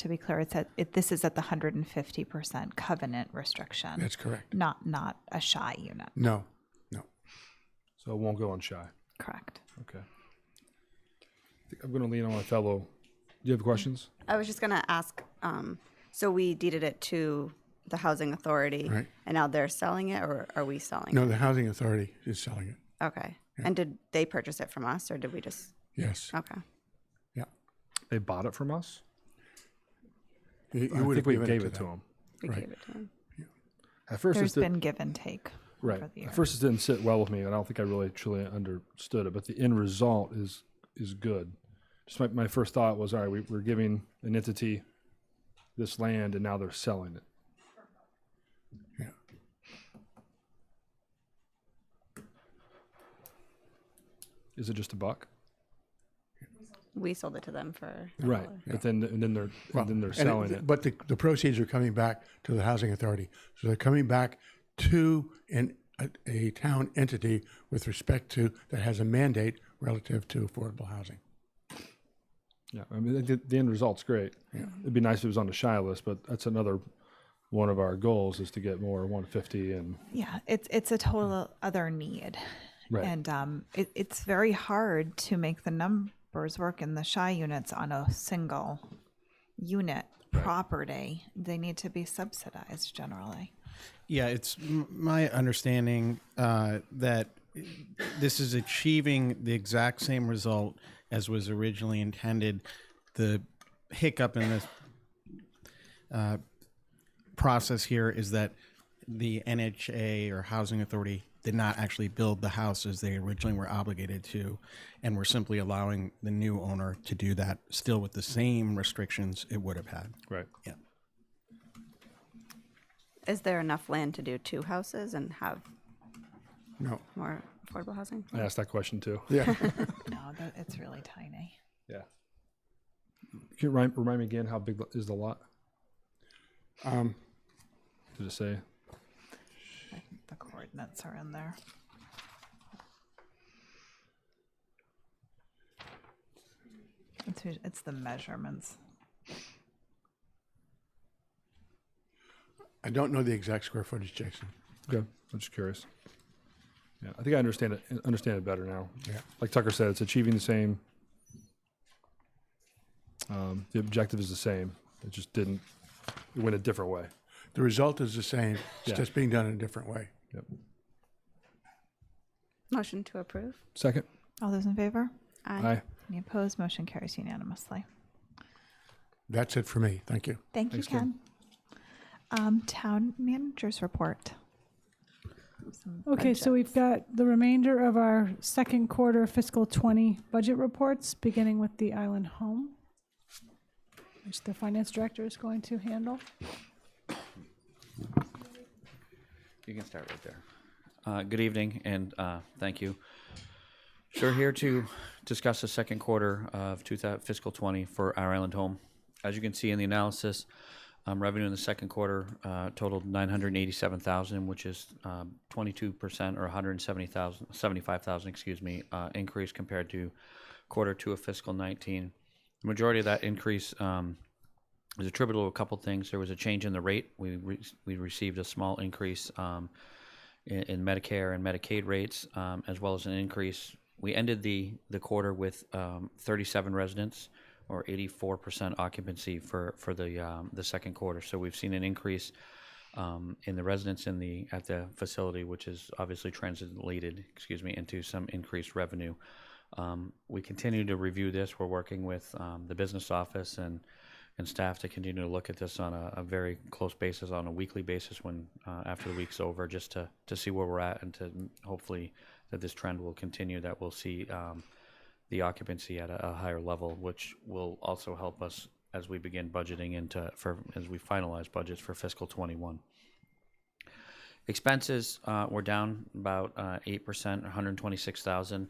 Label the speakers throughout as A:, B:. A: to be clear, it's at, it, this is at the 150% covenant restriction,
B: That's correct.
A: not, not a shy unit.
B: No, no.
C: So it won't go on shy.
A: Correct.
C: Okay. I think I'm going to lean on my fellow. Do you have questions?
D: I was just gonna ask, um, so we deeded it to the housing authority.
B: Right.
D: And now they're selling it or are we selling
B: No, the housing authority is selling it.
D: it? Okay. And did they purchase it from us or did we just,
B: Yes.
D: okay.
B: Yeah.
C: They bought it from us?
B: You- you
C: I
B: would
C: think
B: have
C: we
B: given
C: gave it to
B: them.
C: them.
D: We
B: Right.
D: gave it to them.
C: At first,
A: There's
C: it's the,
A: been give and take.
C: Right.
A: over the
C: At
A: years.
C: first, it didn't sit well with me, and I don't think I really truly understood it. But the end result is is good. Just my, my first thought was, all right, we, we're giving an entity this land, and now they're selling it.
B: Yeah.
C: Is it just a buck?
D: We sold it to them for.
C: Right. But then and then they're and then they're
B: And it-
C: selling it.
B: But the, the proceeds are coming back to the housing authority. So they're coming back to an, a, a town entity with respect to, that has a mandate relative to affordable housing.
C: Yeah, I mean, the, the end result's great. Yeah. It'd be nice if it was on the shy list, but that's another one of our goals is to get more 150 and
A: Yeah, it's it's a total other need,
C: Right.
A: and um, it, it's very hard to make the numbers work in the shy units on a single unit property. They need to be subsidized generally.
E: Yeah, it's m- my understanding uh, that this is achieving the exact same result as was originally intended. The hiccup in this uh, process here is that the NHA or Housing Authority did not actually build the house as they originally were obligated to, and we're simply allowing the new owner to do that, still with the same restrictions it would have had.
C: right.
E: Yeah.
D: Is there enough land to do two houses and have
B: No,
D: more affordable housing?
C: I asked that question too.
B: yeah,
A: No, that, it's really tiny.
C: Yeah. Can you remind, remind me again how big is the lot?
B: um,
C: Did it say?
A: I think the coordinates are in there. It's, us- it's the measurements.
B: I don't know the exact square footage, Jason.
C: Okay. I'm just curious. Yeah, I think I understand it understand it better now.
B: Yeah.
C: Like Tucker said, it's achieving the same. Um, the objective is the same. It just didn't. It went a different way.
B: The result is the same,
C: Yeah.
B: it's just being done in a different way.
C: Yep.
D: Motion to approve?
C: Second.
A: All those in favor?
C: Aye.
A: Any opposed? Motion carries unanimously.
B: That's it for me. Thank you.
A: Thank you, Ken. Um, town managers report.
F: Okay, so we've got the remainder of our second quarter fiscal 20 budget reports, beginning with the Island Home, which the finance director is going to handle.
G: You can start right there. Uh, good evening, and uh, thank you. So we're here to discuss the second quarter of 2000 fiscal 20 for our island home. As you can see in the analysis, um, revenue in the second quarter uh, totaled 987,000, which is um, 22% or 170,000, 75,000, excuse me, uh, increase compared to quarter two of fiscal 19. The majority of that increase um, was attributable to a couple things. There was a change in the rate. We re- we received a small increase um, in, in Medicare and Medicaid rates, um, as well as an increase. We ended the the quarter with um, 37 residents, or 84% occupancy for for the um, the second quarter. So we've seen an increase um, in the residents in the at the facility, which is obviously translated, excuse me, into some increased revenue. Um, we continue to review this. We're working with um, the business office and and staff to continue to look at this on a, a very close basis, on a weekly basis, when uh, after the week's over, just to to see where we're at and to hopefully that this trend will continue. That we'll see um, the occupancy at a, a higher level, which will also help us as we begin budgeting into for as we finalize budgets for fiscal 21. Expenses uh, were down about uh, eight percent, one hundred twenty-six thousand.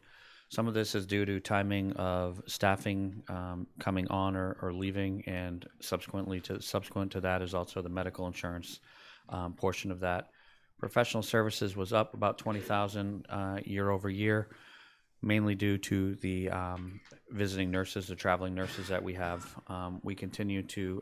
G: Some of this is due to timing of staffing um, coming on or, or leaving, and subsequently to subsequent to that is also the medical insurance um, portion of that. Professional services was up about twenty thousand uh, year over year mainly due to the um, visiting nurses, the traveling nurses that we have. Um, we continue to